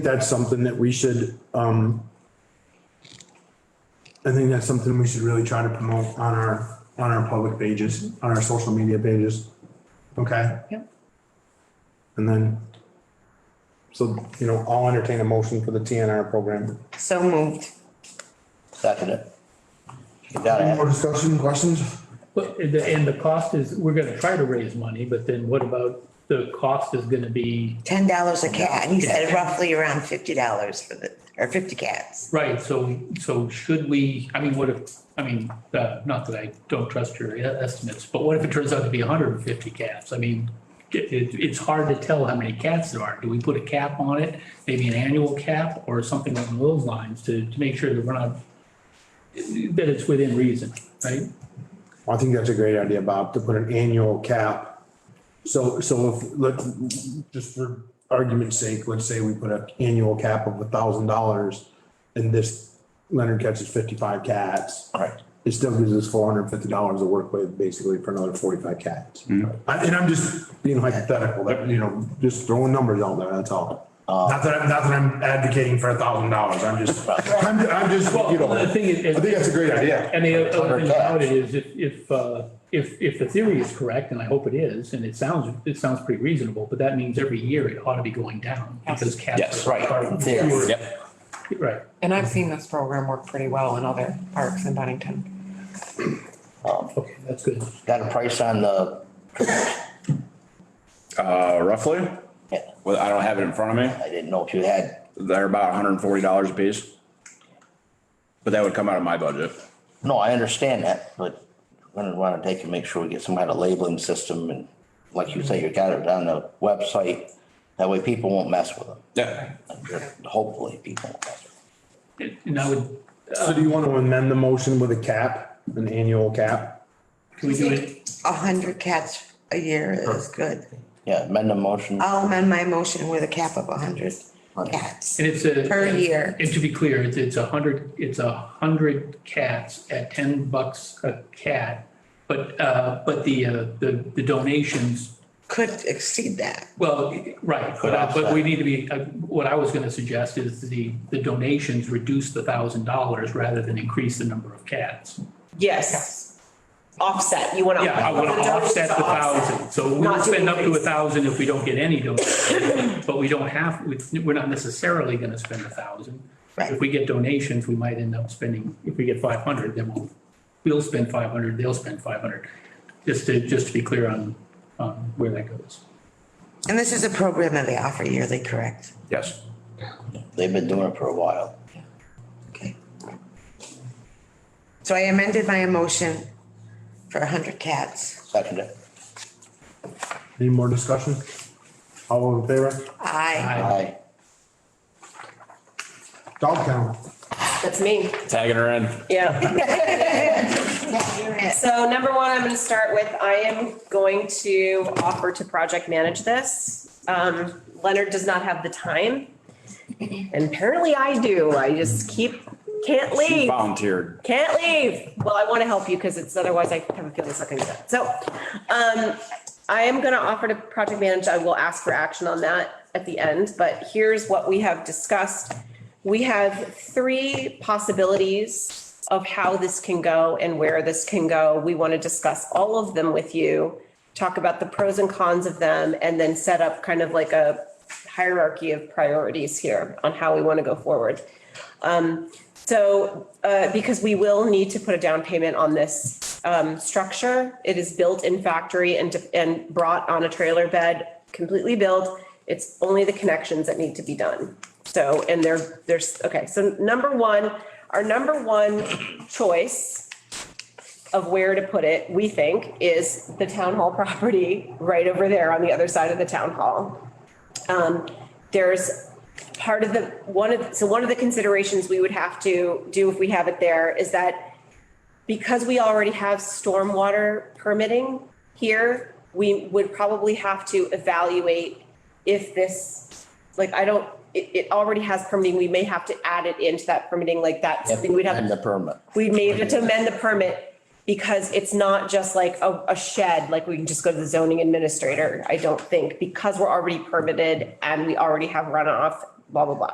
that's something that we should, um, I think that's something we should really try to promote on our, on our public pages, on our social media pages. Okay? Yep. And then, so, you know, I'll entertain a motion for the TNR program. So moved. Second it. You gotta Any have, more discussion, questions? But, and the- and the cost is, we're gonna try to raise money, but then what about the cost is gonna be, Ten dollars a cat. He said roughly around fifty dollars for the, or fifty cats. right, so, so should we, I mean, what if, I mean, uh, not that I don't trust your e- estimates, but what if it turns out to be hundred and fifty cats? I mean, it, it, it's hard to tell how many cats there are. Do we put a cap on it? Maybe an annual cap or something along those lines to, to make sure that we're not, that it's within reason, right? I think that's a great idea, Bob, to put an annual cap. So, so if, let, just for argument's sake, let's say we put an annual cap of a thousand dollars and this Leonard catches fifty-five cats, all right, it still gives us four hundred and fifty dollars to work with basically for another forty-five cats. Mm-hmm. I- And I'm just being hypothetical, that, you know, just throwing numbers out there, that's all. Uh, Not that, I'm not that I'm advocating for a thousand dollars, I'm just, I'm, I'm just, you know, Well, the I thing is. think that's a great idea. And the other thing Hundred about cats. it is if, if, uh, if, if the theory is correct, and I hope it is, and it sounds, it sounds pretty reasonable, but that means every year it ought to be going down because cats. yes, are- right, are- there, yep. Right. And I've seen this program work pretty well in other parks in Bennington. Okay, that's good. Got a price on the, Uh, roughly, yeah, well, I don't have it in front of me. I didn't know if you had, They're about hundred and forty dollars a piece. But that would come out of my budget. no, I understand that, but I'm gonna wanna take and make sure we get some kind of labeling system and like you say, you got it on the website, that way people won't mess with them. Yeah. Hopefully, people won't mess with And I would, So do you want to amend the motion with a cap, an annual cap? can we do it? A hundred cats a year is good. them. Yeah, amend the motion, Uh, I'll amend my motion with a cap of a hundred cats. And it's a. Per year. And to be clear, it's, it's a hundred, it's a hundred cats at ten bucks a cat. But, uh, but the, uh, the, the donations Could exceed that. Well, right, but, uh, but we need to be, uh, what I was gonna suggest is the, the donations reduce the thousand dollars rather than increase the number of cats. Yes. Offset, you want to. Yeah, I wanna offset the thousand, so we'll Not to spend up to a increase. thousand if we don't get any donations. But we don't have, we- we're not necessarily gonna spend a thousand. Right. If we get donations, we might end up spending, if we get five hundred, then we'll, we'll spend five hundred, they'll spend five hundred. Just to, just to be clear on, on where that goes. And this is a program that they offer yearly, correct? Yes. they've been doing it for a while. Okay. So I amended my motion for a hundred cats. Second it, Any more discussion? All in favor? Aye. I- aye, Dog count. That's me, Tagging her in. yeah. So number one, I'm going to start with, I am going to offer to project manage this. Um, Leonard does not have the time. And apparently I do. I just keep, can't She leave. volunteered. Can't leave. Well, I want to help you because it's otherwise I have a feeling something is up. So um, I am going to offer to project manage. I will ask for action on that at the end, but here's what we have discussed. We have three possibilities of how this can go and where this can go. We want to discuss all of them with you, talk about the pros and cons of them, and then set up kind of like a hierarchy of priorities here on how we want to go forward. So, uh, because we will need to put a down payment on this, um, structure, it is built in factory and, and brought on a trailer bed, completely built. It's only the connections that need to be done. So, and there, there's, okay, so number one, our number one choice of where to put it, we think, is the town hall property right over there on the other side of the town hall. Um, there's part of the, one of, so one of the considerations we would have to do if we have it there is that because we already have stormwater permitting here, we would probably have to evaluate if this, like, I don't, it, it already has permitting, we may have to add it into that permitting, like that's something we'd have. and the permit. We may have to amend the permit because it's not just like a, a shed, like we can just go to the zoning administrator, I don't think, because we're already permitted and we already have runoff, blah, blah, blah.